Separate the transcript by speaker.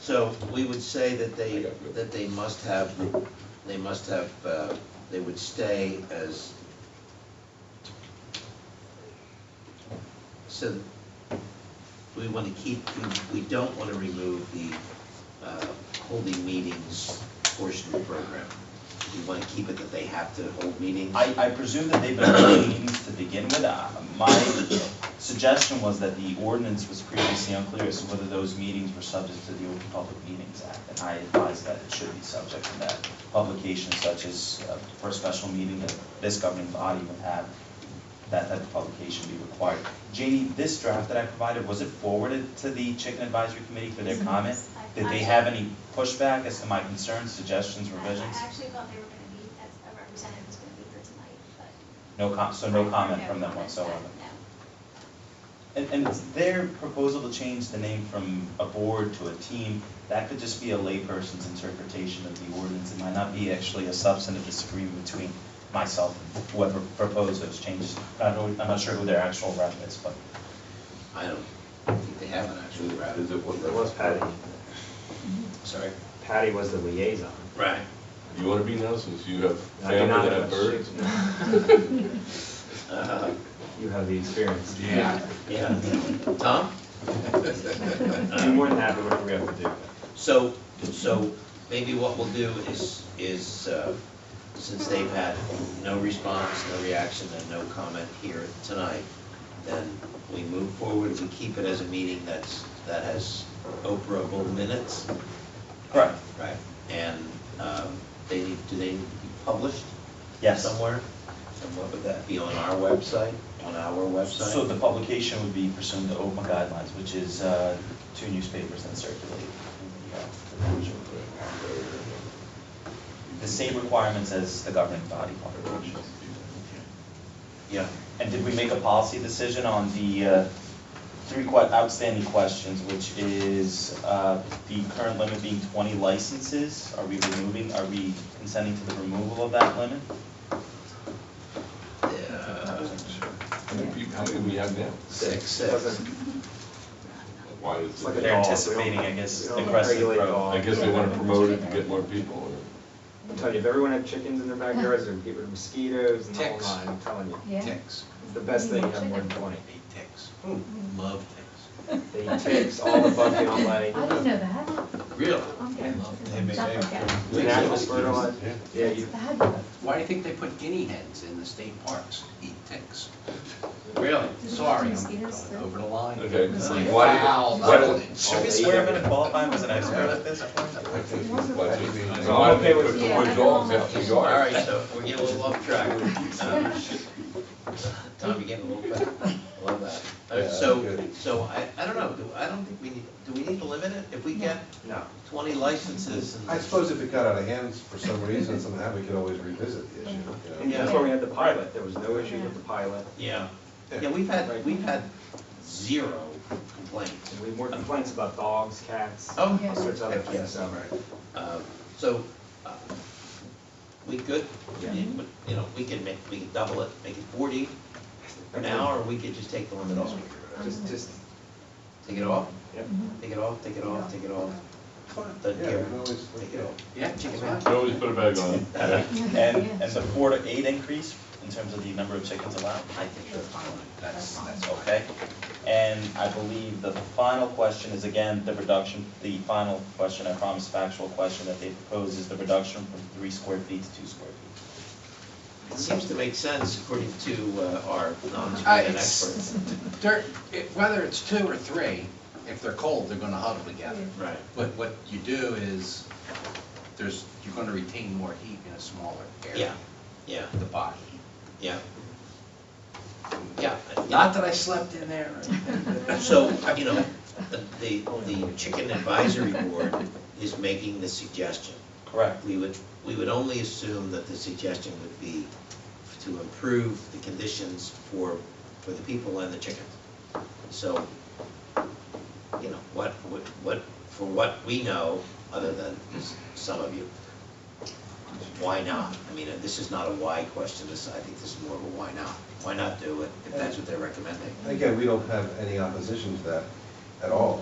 Speaker 1: So we would say that they,
Speaker 2: I got you.
Speaker 1: that they must have, they must have, uh, they would stay as, so we want to keep, we- we don't want to remove the uh, holding meetings portion of the program. We want to keep it that they have to hold meetings.
Speaker 3: I, I presume that they've been holding meetings to begin with. Uh, My suggestion was that the ordinance was previously unclear as to whether those meetings were subject to the Open Public Meetings Act. And I advise that it should be subject to that publication such as uh, for a special meeting that this governing body would have, that, that the publication be required. Janie, this draft that I provided, was it forwarded to the Chicken Advisory Committee for their
Speaker 4: Yes, it
Speaker 3: comment?
Speaker 4: was. I-
Speaker 3: Did they
Speaker 4: I-
Speaker 3: have any pushback as to my concerns, suggestions, revisions?
Speaker 4: I actually thought they were gonna be, that a representative was gonna be here tonight, but.
Speaker 3: No com, so no comment
Speaker 4: No
Speaker 3: from them
Speaker 4: comment,
Speaker 3: whatsoever?
Speaker 4: no, no.
Speaker 3: And, and it's their proposal to change the name from a board to a team, that could just be a layperson's interpretation of the ordinance. It might not be actually a substantive disagreement between myself and whoever proposed those changes. I don't, I'm not sure who their actual rep is, but
Speaker 1: I don't think they have an actual route.
Speaker 2: Is it what-
Speaker 5: It was Patty.
Speaker 1: Sorry.
Speaker 5: Patty was the liaison.
Speaker 1: Right.
Speaker 2: You want to be now since you have
Speaker 5: I do
Speaker 2: family
Speaker 5: not
Speaker 2: that have birds?
Speaker 1: Uh,
Speaker 5: You have the experience.
Speaker 2: Yeah.
Speaker 1: Yeah. Tom?
Speaker 5: I'm Uh, more than happy whatever we have to do.
Speaker 1: So, so maybe what we'll do is, is, uh, since they've had no response, no reaction, and no comment here tonight, then we move forward, we keep it as a meeting that's, that has operable minutes,
Speaker 3: Correct,
Speaker 1: right? And um, they need, do they need to be published?
Speaker 3: yes.
Speaker 1: Somewhere? And what would that be, on our website, on our website?
Speaker 3: So the publication would be pursuant to open guidelines, which is uh, two newspapers that circulate. in the, uh, the township. The same requirements as the governing body publications.
Speaker 1: Yeah.
Speaker 3: And did we make a policy decision on the uh, three que- outstanding questions, which is uh, the current limit being 20 licenses? Are we removing, are we consenting to the removal of that limit?
Speaker 1: Uh,
Speaker 2: How many people, how many do we have now?
Speaker 1: Six, six.
Speaker 2: Why is
Speaker 5: Like
Speaker 2: it?
Speaker 5: a
Speaker 3: They're
Speaker 5: dog.
Speaker 3: anticipating, I guess,
Speaker 5: We don't
Speaker 3: aggressive
Speaker 5: regulate
Speaker 3: growth.
Speaker 5: dogs.
Speaker 2: I guess they want to promote it to get more people, or
Speaker 5: I'm telling you, if everyone had chickens in their backyards, they'd get rid of mosquitoes and the whole
Speaker 6: Ticks.
Speaker 5: nine, I'm telling you.
Speaker 7: Yeah.
Speaker 6: Ticks,
Speaker 5: It's the best thing, you have more than twenty.
Speaker 6: they ticks.
Speaker 1: Love things.
Speaker 5: They eat ticks, all the bugs they don't like.
Speaker 7: I didn't know that.
Speaker 1: Really?
Speaker 7: Okay.
Speaker 6: They make
Speaker 7: Stuff
Speaker 6: eggs.
Speaker 7: like that.
Speaker 5: It's an animal fertilizer. Yeah,
Speaker 7: That's
Speaker 5: you,
Speaker 7: fabulous.
Speaker 6: Why do you think they put guinea hens in the state parks? Eat ticks.
Speaker 1: Really?
Speaker 6: Sorry, I'm
Speaker 7: Mosquitoes,
Speaker 6: going
Speaker 7: too?
Speaker 6: over the line.
Speaker 2: Okay,
Speaker 6: It's
Speaker 2: so
Speaker 6: like,
Speaker 2: why-
Speaker 6: wow,
Speaker 2: why-
Speaker 6: that's-
Speaker 3: Should we swear him in and qualify him as an expert at this point?
Speaker 2: I think it's why they-
Speaker 5: So I'm okay with-
Speaker 2: Put more dogs out in the
Speaker 1: All
Speaker 2: yard.
Speaker 1: right, so we're getting a little off track. Um, Tom, you're getting a little bit, I love that. Uh,
Speaker 2: Yeah,
Speaker 1: So,
Speaker 2: good.
Speaker 1: so I, I don't know, do, I don't think we need, do we need to limit it? If we get
Speaker 5: no.
Speaker 1: twenty licenses and.
Speaker 8: I suppose if it got out of hand for some reason, somehow we could always revisit the issue. you
Speaker 5: And
Speaker 8: know.
Speaker 5: that's why we had the pilot. There was no issue with the pilot.
Speaker 1: Yeah, yeah, we've had, we've had zero complaints.
Speaker 5: And we had more complaints about dogs, cats, all
Speaker 1: Oh,
Speaker 7: Yeah.
Speaker 5: sorts of other
Speaker 1: heck
Speaker 5: things,
Speaker 1: yes, all
Speaker 5: so.
Speaker 1: right. Um, So, uh, we could,
Speaker 5: Yeah.
Speaker 1: you know, we could make, we could double it, make it forty now, or we could just take the limit off.
Speaker 5: Just, just,
Speaker 1: Take it off?
Speaker 5: yep.
Speaker 1: Take it off, take it off, take it off. Doesn't
Speaker 8: Yeah,
Speaker 1: care.
Speaker 8: we can always-
Speaker 1: Take it off.
Speaker 6: Yeah, chicken
Speaker 2: You can always put a bag on. Yeah.
Speaker 3: And, and the four to eight increase in terms of the number of chickens allowed?
Speaker 6: I think that's fine, that's, that's
Speaker 3: Okay,
Speaker 6: okay.
Speaker 3: and I believe the final question is again, the reduction, the final question, I promise factual question that they propose is the reduction from three square feet to two square feet.
Speaker 1: It seems to make sense according to uh, our
Speaker 6: I-
Speaker 1: non-human
Speaker 6: it's-
Speaker 1: experts.
Speaker 6: They're, it- whether it's two or three, if they're cold, they're gonna huddle together.
Speaker 1: Right.
Speaker 6: But what you do is, there's, you're gonna retain more heat in a smaller
Speaker 1: Yeah,
Speaker 6: area,
Speaker 1: yeah,
Speaker 6: the body.
Speaker 1: yeah. Yeah.
Speaker 6: Not that I slept in there or anything.
Speaker 1: So, you know, the- the, the chicken advisory board is making the suggestion.
Speaker 3: Correct.
Speaker 1: We would, we would only assume that the suggestion would be to improve the conditions for, for the people and the chickens. So, you know, what, what, what, for what we know, other than s- some of you, why not? I mean, this is not a why question, this, I think this is more of a why not? Why not do it, if that's what they're recommending?
Speaker 8: Again, we don't have any opposition to that at all.